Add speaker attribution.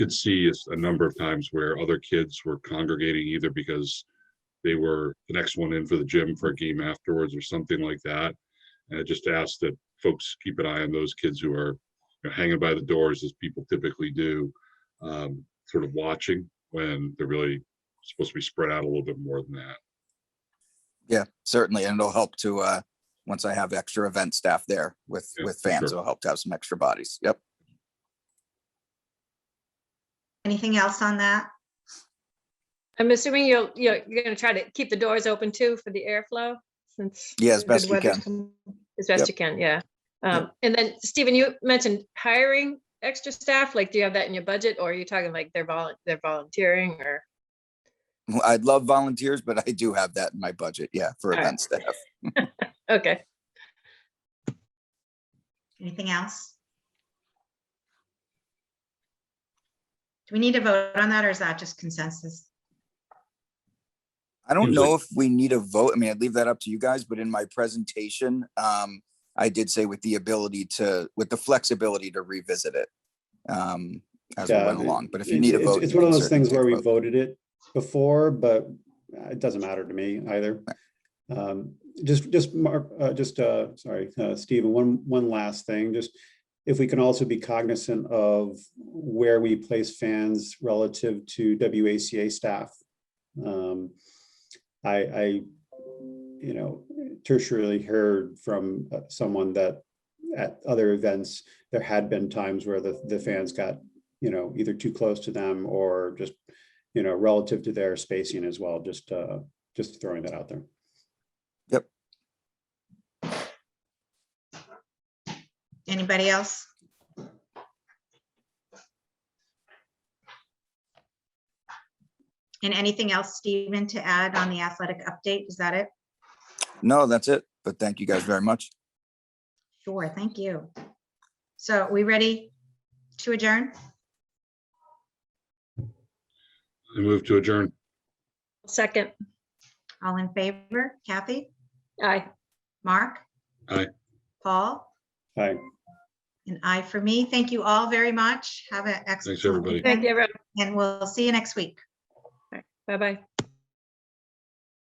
Speaker 1: could see is a number of times where other kids were congregating either because they were the next one in for the gym for a game afterwards or something like that. And I just ask that folks keep an eye on those kids who are you know, hanging by the doors as people typically do, um, sort of watching when they're really supposed to be spread out a little bit more than that.
Speaker 2: Yeah, certainly. And it'll help to, uh, once I have extra event staff there with,
Speaker 1: Yeah,
Speaker 2: with
Speaker 1: for
Speaker 2: fans,
Speaker 1: sure.
Speaker 2: it'll help to have some extra bodies. Yep.
Speaker 3: Anything else on that?
Speaker 4: I'm assuming you'll, you're, you're gonna try to keep the doors open too for the airflow since.
Speaker 2: Yeah, as
Speaker 4: the
Speaker 2: best we
Speaker 4: weather's
Speaker 2: can.
Speaker 4: come- As
Speaker 2: Yep.
Speaker 4: best you can, yeah. Um, and then Stephen, you mentioned hiring extra staff, like, do you have that in your budget or are you talking like they're volun, they're volunteering or?
Speaker 2: I'd love volunteers, but I do have that in my budget. Yeah, for
Speaker 4: All right.
Speaker 2: event staff.
Speaker 4: Okay,
Speaker 3: Anything else? Do we need to vote on that or is that just consensus?
Speaker 2: I don't
Speaker 1: Usually-
Speaker 2: know if we need a vote. I mean, I'd leave that up to you guys, but in my presentation, um, I did say with the ability to, with the flexibility to revisit it. Um, as we
Speaker 5: Yeah,
Speaker 2: went along, but if you
Speaker 5: it's-
Speaker 2: need a
Speaker 5: it's-
Speaker 2: vote.
Speaker 5: It's
Speaker 2: you
Speaker 5: one of
Speaker 2: can
Speaker 5: those things where
Speaker 2: certainly
Speaker 5: we
Speaker 2: take a vote.
Speaker 5: voted it before, but it doesn't matter to me either. Um, Just, just, Mark, uh, just, uh, sorry, uh, Stephen, one, one last thing, just if we can also be cognizant of where we place fans relative to WACA staff. Um, I, I, you know, tertiarily heard from uh, someone that at other events, there had been times where the, the fans got you know, either too close to them or just, you know, relative to their spacing as well, just, uh, just throwing that out there.
Speaker 3: Anybody else? And anything else, Stephen, to add on the athletic update? Is that it?
Speaker 2: No, that's it. But thank you guys very much.
Speaker 3: Sure, thank you. So we ready to adjourn?
Speaker 1: I move to adjourn.
Speaker 4: second,
Speaker 3: All in favor? Kathy?
Speaker 4: aye.
Speaker 3: Mark?
Speaker 1: Aye.
Speaker 3: Paul?
Speaker 5: Hi,
Speaker 3: An aye for me. Thank you all very much. Have an excellent.
Speaker 1: everybody.
Speaker 4: Thank you,
Speaker 3: weekend,
Speaker 4: everyone.
Speaker 3: And we'll see you next week.
Speaker 4: Bye-bye.